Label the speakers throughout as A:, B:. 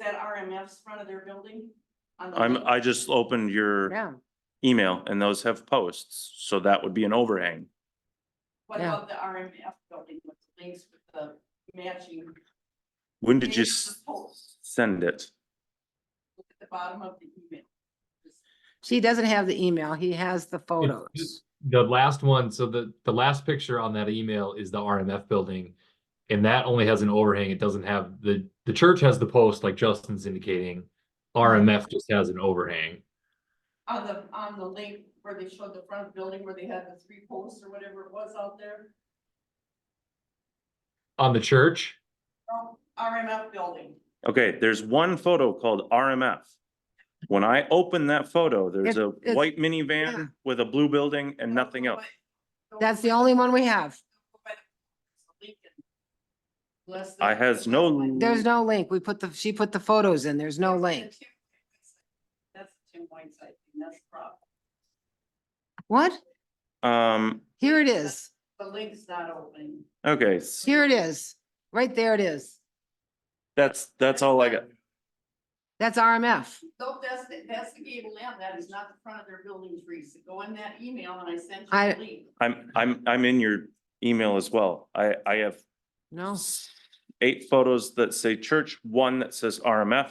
A: that RMF's front of their building? on the
B: I'm,
A: lake?
B: I just opened your
C: Yeah,
B: email and those have posts, so that would be an overhang.
A: What
C: yeah.
A: about the RMF building with the links with the matching?
B: When did you
A: matching
B: s-
A: posts?
B: send it?
A: Look at the bottom of the email.
C: she doesn't have the email. He has the photos.
D: The last one, so the, the last picture on that email is the RMF building. And that only has an overhang. It doesn't have the, the church has the post like Justin's indicating. RMF just has an overhang.
A: On the, on the link where they showed the front of the building where they had the three posts or whatever it was out there,
D: On the church,
A: Oh, RMF building.
B: Okay, there's one photo called RMF. When I open that photo, there's
C: It-
B: a
C: it's-
B: white
C: yeah. Oh,
B: minivan with a blue building and nothing else.
C: That's the only one we have.
A: Unless
B: I has no-
C: There's no link. We put the, she put the photos in. There's no link.
A: That's the Tim White site, and that's the problem.
C: What?
B: Um,
C: Here it is.
A: The link's not opening.
B: okay, s-
C: Here it is. Right there it is.
B: that's, that's all I got.
C: That's RMF.
A: Nope, that's, the- that's the gable end, that is not the front of their building trees, go in that email and I sent you
C: I-
A: the link.
B: I'm, I'm, I'm in your email as well. I, I have
C: No,
B: eight photos that say church, one that says RMF.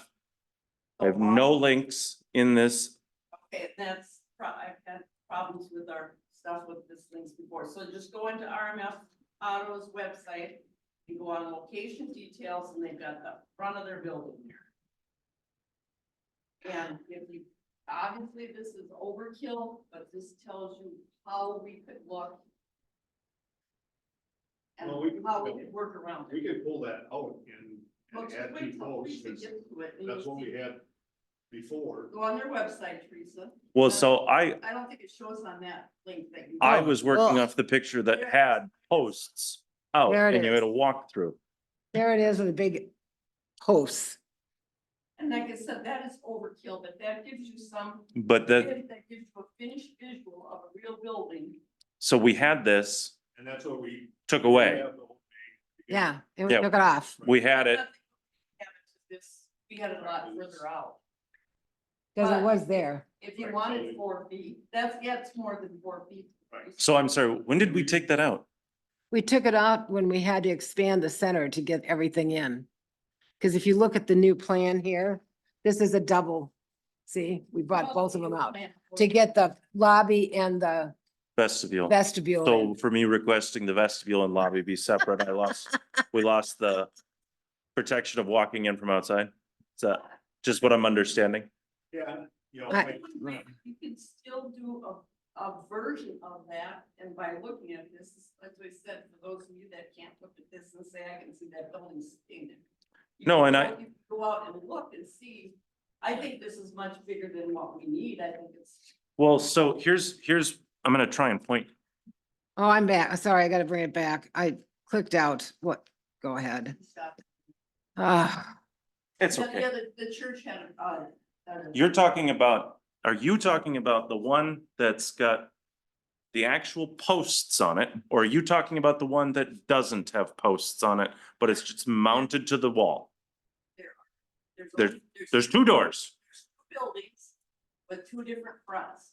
C: Oh,
B: I have no links in this.
A: Okay, that's, pro- I've had problems with our stuff with this links before, so just go into RMF Auto's website. You go on location details and they've got the front of their building there. And if you, obviously this is overkill, but this tells you how we could look. And
E: Well, we can-
A: how we could work around
E: We
A: it.
E: could pull that out and,
A: Well,
E: and
A: just
E: add
A: wait
E: two
A: till
E: posts,
A: Teresa
E: 'cause
A: gets to it and
E: that's
A: you'll
E: what we
A: see.
E: had before.
A: Go on their website, Teresa.
B: Well, so I,
A: I don't think it shows on that link that you.
B: I
C: Oh,
B: was working
C: well.
B: off the picture that had posts out
C: There it
B: and you
C: is.
B: had a walkthrough.
C: there it is with a big post.
A: And like I said, that is overkill, but that gives you some,
B: But that,
A: that gives you a finished visual of a real building.
B: so we had this,
E: And that's what we.
B: took away.
C: Yeah, and we
B: Yeah.
C: took it off.
B: We had it.
A: This, we had it a lot further out.
C: Cause it was there.
A: If you wanted four feet, that's, yeah, it's more than four feet.
E: Right.
B: So I'm sorry, when did we take that out?
C: We took it out when we had to expand the center to get everything in. Cause if you look at the new plan here, this is a double. See, we brought both of them out to get the lobby and the
B: Vestibule.
C: vestibule.
B: So
C: in.
B: for me requesting the vestibule and lobby be separate, I lost, we lost the protection of walking in from outside. Is that just what I'm understanding?
E: Yeah, you know,
C: I-
E: like,
A: You can still do a, a version of that, and by looking at this, like I said, for those of you that can't look at this and say, I can see that building sitting there. You
B: No,
A: can
B: and I-
A: go- you can Go out and look and see, I think this is much bigger than what we need, I think it's.
B: Well, so here's, here's, I'm gonna try and point.
C: Oh, I'm back. Sorry, I gotta bring it back. I clicked out. What? Go ahead. Ah,
B: It's
A: Yeah, yeah, the, the church had, uh. uh,
B: You're talking about, are you talking about the one that's got the actual posts on it? Or are you talking about the one that doesn't have posts on it, but it's just mounted to the wall? there-
A: only-
B: There's two doors.
A: there's two buildings with two different fronts.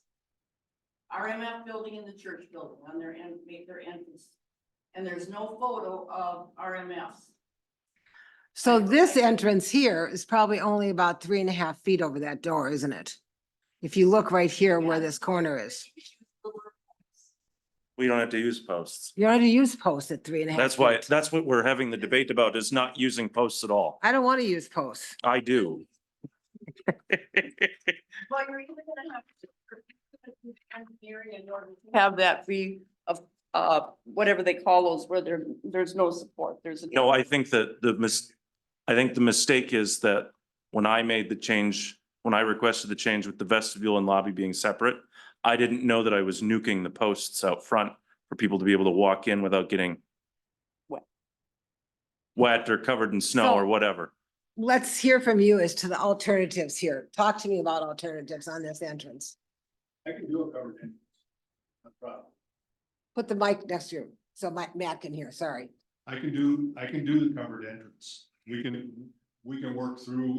A: RMF building and the church building on their end, made their entrance. And there's no photo of RMFs.
C: so
A: I-
C: this entrance here is probably only about three and a half feet over that door, isn't it? If you look right here where
A: Yeah.
C: this corner is,
B: We don't have to use posts.
C: you don't have to use posts at three and a half.
B: That's why,
C: feet.
B: that's what we're having the debate about is not using posts at all.
C: I don't want to use posts.
B: I do.
A: Well, you're even gonna have to. Engineering in order to Have that be of, uh, whatever they call those, where there, there's no support, there's.
B: No, I think that the mis, I think the mistake is that when I made the change, when I requested the change with the vestibule and lobby being separate, I didn't know that I was nuking the posts out front for people to be able to walk in without getting
A: Wet.
B: wet or covered in snow
C: So-
B: or whatever.
C: Let's hear from you as to the alternatives here. Talk to me about alternatives on this entrance.
E: I can do a covered entrance. No problem.
C: Put the mic next to you, so Mike, Matt can hear, sorry.
E: I can do, I can do the covered entrance. We can, we can work through